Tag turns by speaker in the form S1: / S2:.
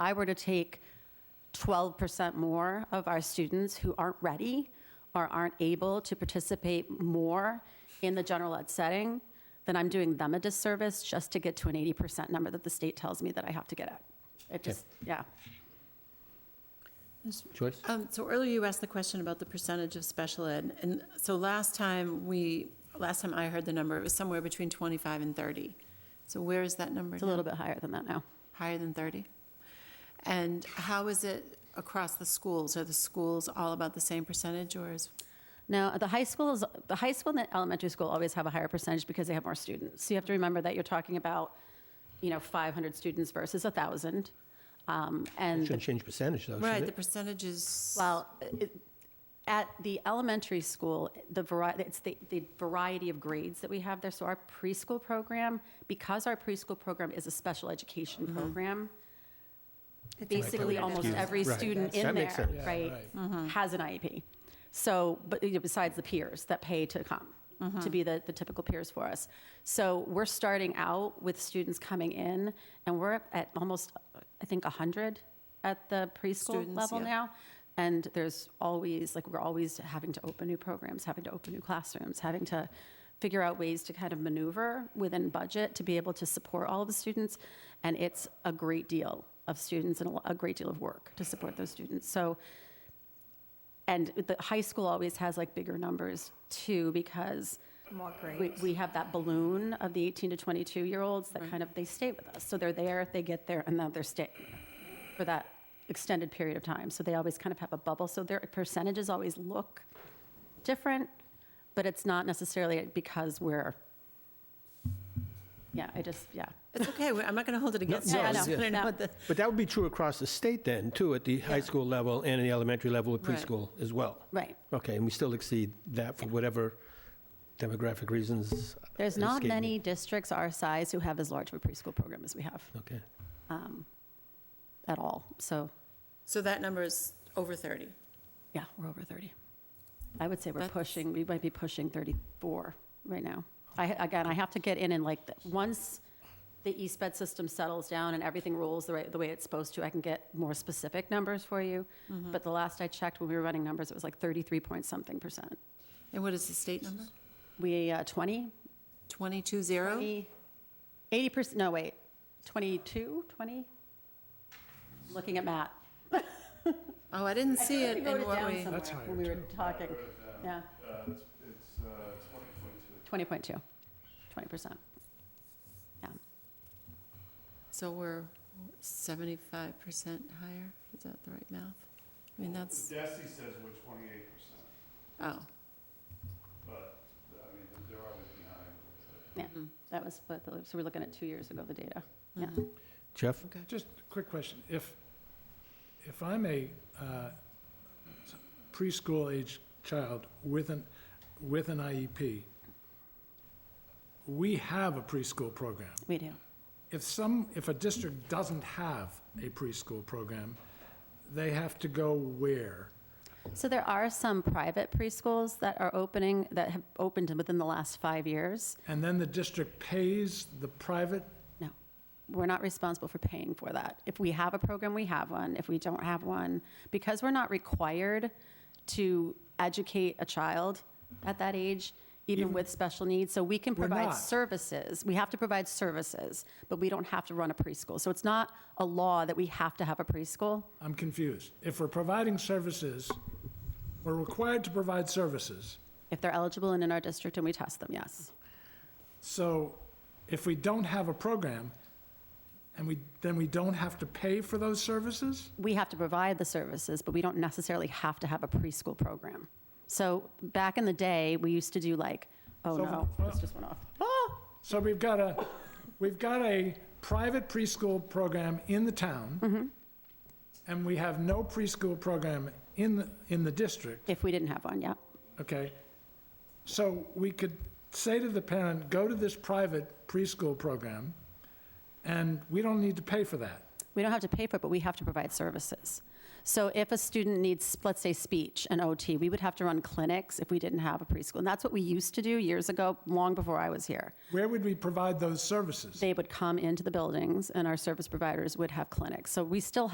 S1: I were to take 12% more of our students who aren't ready or aren't able to participate more in the general ed setting, then I'm doing them a disservice just to get to an 80% number that the state tells me that I have to get at. It just, yeah.
S2: Joyce?
S3: Um, So earlier you asked the question about the percentage of special ed, and so last time we, last time I heard the number, it was somewhere between 25 and 30. So where is that number
S1: It's a
S3: now?
S1: little bit higher than that now.
S3: Higher than 30? And how is it across the schools? Are the schools all about the same percentage, or is,
S1: Now, the high school is, the high school and the elementary school always have a higher percentage because they have more students. So you have to remember that you're talking about, you know, 500 students versus 1,000. Um, And
S2: Shouldn't change percentage, though,
S3: right,
S2: should
S3: the
S2: it?
S3: percentage is,
S1: Well, it- at the elementary school, the variety, it's the, the variety of grades that we have there. So our preschool program, because our preschool program is a special education
S2: Mm-hmm.
S1: program, basically almost every
S2: Right.
S1: student in
S2: That makes
S1: there,
S2: sense.
S1: right,
S3: Mm-hmm.
S1: has an IEP. So, but you know, besides the peers that pay to come,
S3: Mm-hmm.
S1: to be the, the typical peers for us. So we're starting out with students coming in, and we're up at almost, I think, 100 at the preschool
S3: Students,
S1: level
S3: yeah.
S1: now. And there's always, like, we're always having to open new programs, having to open new classrooms, having to figure out ways to kind of maneuver within budget to be able to support all of the students. And it's a great deal of students and a lo- a great deal of work to support those students. So and the high school always has like bigger numbers too, because
S4: More
S1: we,
S4: grades.
S1: we have that balloon of the 18 to 22 year olds that kind of, they stay with us. So they're there, they get there, and then they're staying for that extended period of time. So they always kind of have a bubble. So their percentages always look different, but it's not necessarily because we're, yeah, I just, yeah.
S3: it's okay, we- I'm not going to hold it against you.
S1: no,
S3: I just
S1: yeah.
S3: want to know
S1: No.
S3: what the,
S2: But that would be true across the state then, too, at the high school level and the elementary level with
S3: Right.
S2: preschool as well.
S1: Right.
S2: Okay, and we still exceed that for whatever demographic reasons.
S1: There's not
S2: escape me.
S1: many districts our size who have as large of a preschool program as we have um,
S2: Okay.
S1: at all. So
S3: so that number is over 30.
S1: Yeah, we're over 30. I would say we're
S3: That's-
S1: pushing, we might be pushing 34 right now. I, again, I have to get in and like, the- once the East Bed system settles down and everything rolls the way, the way it's supposed to, I can get more specific numbers for you. But the last I checked, when we were running numbers, it was like 33 point something percent.
S3: And what is the state number?
S1: We, uh, 20,
S3: 22, 0?
S1: 20, 80 percent, no, wait, 22, 20? Looking at Matt.
S3: Oh, I didn't see it
S1: We
S3: in
S1: wrote it
S3: what
S1: down
S3: we,
S1: somewhere when we were talking, yeah.
S5: Uh, It's it's, uh, 2022.
S1: 20.2, 20%. Yeah,
S3: so we're 75% higher? Is that the right math? I mean, that's.
S5: DESI says we're 28%,
S3: Oh,
S5: but, I mean, they're always behind.
S1: yeah, that was, what the- so we're looking at two years ago, the data. Yeah,
S2: Jeff?
S3: okay.
S6: Just a quick question. If, if I'm a uh, preschool-aged child with an, with an IEP, we have a preschool program.
S1: we do.
S6: If some, if a district doesn't have a preschool program, they have to go where?
S1: So there are some private preschools that are opening, that have opened within the last five years.
S6: And then the district pays the private,
S1: No, we're not responsible for paying for that. If we have a program, we have one. If we don't have one, because we're not required to educate a child at that age, even with special needs, so we can
S6: We're
S1: provide
S6: not.
S1: services. We have to provide services, but we don't have to run a preschool. So it's not a law that we have to have a preschool.
S6: I'm confused. If we're providing services, we're required to provide services.
S1: If they're eligible and in our district and we test them, yes.
S6: So if we don't have a program, and we, then we don't have to pay for those services?
S1: we have to provide the services, but we don't necessarily have to have a preschool program. So back in the day, we used to do like, oh
S6: So-
S1: no, this just went off.
S6: So we've got a, we've got a private preschool program in the town, and we have no preschool program in, the in the district,
S1: If we didn't have one, yeah.
S6: okay? So we could say to the parent, go to this private preschool program, and we don't need to pay for that.
S1: We don't have to pay for it, but we have to provide services. So if a student needs, let's say, speech and OT, we would have to run clinics if we didn't have a preschool. And that's what we used to do years ago, long before I was here.
S6: Where would we provide those services?
S1: They would come into the buildings and our service providers would have clinics. So we still